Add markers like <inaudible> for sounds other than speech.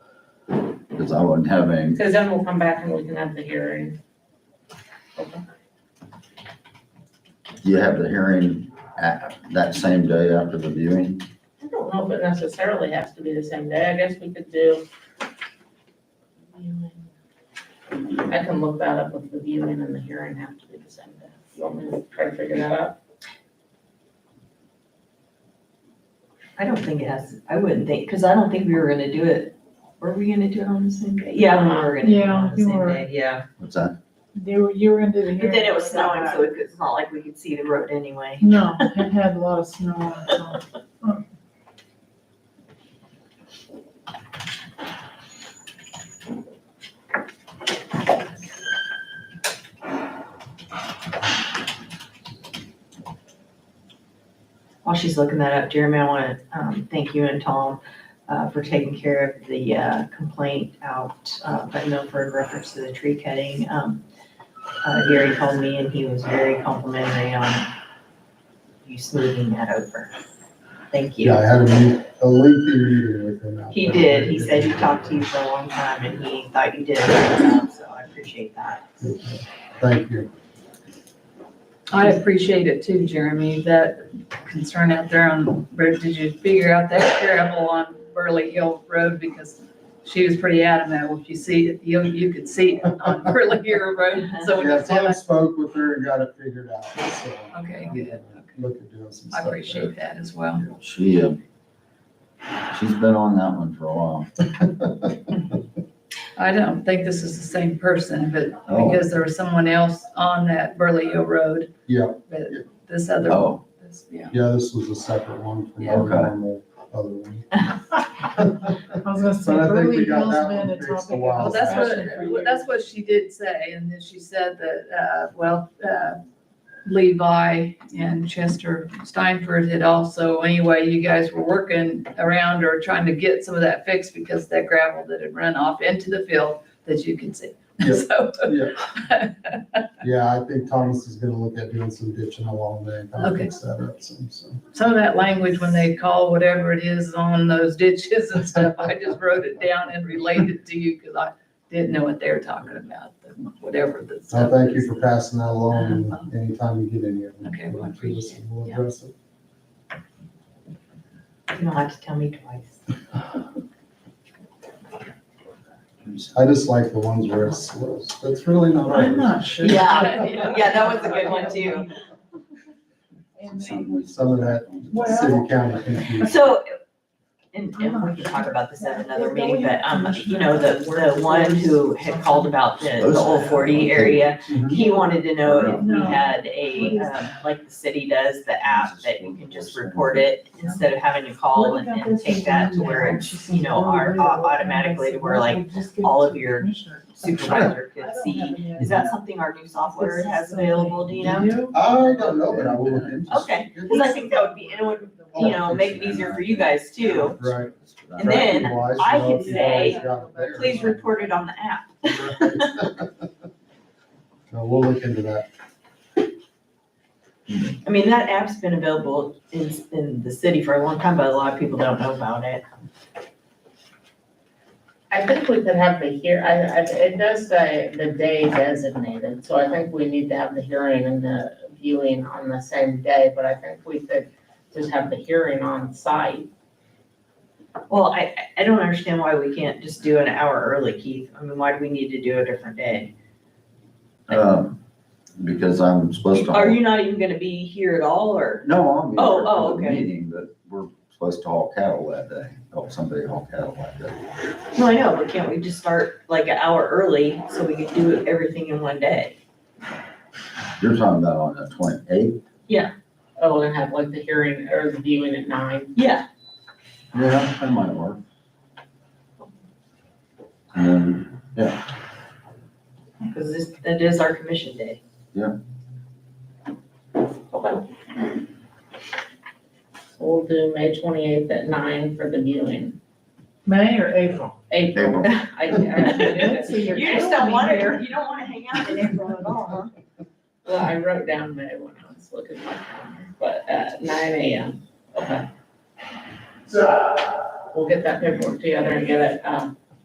because I wasn't having, Because then we'll come back and we can have the hearing. do you have the hearing at, that same day after the viewing? I don't know if it necessarily has to be the same day. I guess we could do. viewing. I can look that up if the viewing and the hearing have to be the same day. You want me to try to figure that out? I don't think it has, I wouldn't think, because I don't think we were gonna do it. Were we gonna do it on the same day? Yeah, we were gonna do it Yeah, on the you same were. day, yeah. What's that? They were, you were into the. But then it was snowing, so it- it's not like we could see the road anyway. No, it had a lot of snow on it, so. While she's looking that up, Jeremy, I wanna, um, thank you and Tom, uh, for taking care of the, uh, complaint out, uh, by Milford in reference to the tree cutting. Um, uh, Gary called me and he was very complimentary on you smoothing that over. Thank you. Yeah, I had a meet- a lengthy meeting with him. out He there. did, he said he talked to you for a long time and he thought you did a great job, so I appreciate that. Thank you. I appreciate it too, Jeremy, that concern out there on, road. did you figure out that gravel on Burley Hill Road? Because she was pretty adamant, if you see, it, you, you could see it on <laughs> Burley Hill Road, so when Yeah, you said, Tom spoke with her and got it figured out, so. Okay, good. Look at doing some I stuff. appreciate that as well. She, uh, she's been on that one for a while. I don't think this is the same person, but Oh. because there was someone else on that Burley Hill Road, Yeah, but this other, Oh, this, yeah. yeah, this was a separate one from Yeah. our Okay. normal other <laughs> one. I was gonna say, But I think we Burley got Hills that been one a fixed a topic. of while Well, that's discussion for what, years. that's what she did say, and then she said that, uh, well, uh, Levi and Chester Steinford had also, anyway, you guys were working around or trying to get some of that fixed because that gravel that had run off into the field that you can see. Yeah. <laughs> So, Yeah, I think Thomas is gonna look at doing some ditching along there and kind of Okay. fix that up some, so. some of that language when they call whatever it is on those ditches and stuff, I just wrote it down and related to you because I didn't know what they were talking about, whatever the So stuff Oh, thank is. you for passing that along and anytime you get any of them. Okay, well, I appreciate it, We'll yeah. address it. You don't have to tell me twice. I just like the ones where it's slow. That's really not. I'm ours. not sure. Yeah. <laughs> Yeah, that was a good one too. And they- Some of that city county confusion. So, and, and we can talk about this at another meeting, but, um, you know, the, the one who had called about the, the old forty area, he wanted to know if we had a, um, like the city does, the app that you can just report it instead of having to call and, and take that to where it's, you "Oh, know, our, automatically to where like all of your supervisor could see. Is that something our new software has available, do you know? I don't know, but I will look into it. Okay, cause I think that would be, and it would, you know, make it easier for you guys too. Right. And then Tracking-wise, I you know, could if you've always say, got it there. Please <laughs> report it on the app. <laughs> No, we'll look into that. I mean, that app's been available in, in the city for a long time, but a lot of people don't know about it. I think we could have the hear, I, I, it does say the day designated, so I think we need to have the hearing and the viewing on the same day, but I think we could just have the hearing on site. Well, I, I- I don't understand why we can't just do an hour early, Keith. I mean, why do we need to do a different day? um, because I'm supposed to. Are you not even gonna be here at all, or? No, I'm Oh, here oh, for the okay. meeting, but we're supposed to haul cattle that day, help somebody haul cattle that day. No, I know, but can't we just start like an hour early so we can do everything in one day? You're talking about on the twenty-eighth? Oh, and have like the hearing or the viewing at nine. Yeah, Yeah, that might work. And then, because this, that is our commission day. We'll do May twenty-eighth at nine for the viewing. May or April? April, April, I, <laughs> I, So you're You just don't killing me wanna, here. you don't wanna hang out in April at all, huh? well, I wrote down May when I was looking at my calendar, but, uh, nine AM, okay. We'll get that paperwork together and get it, um,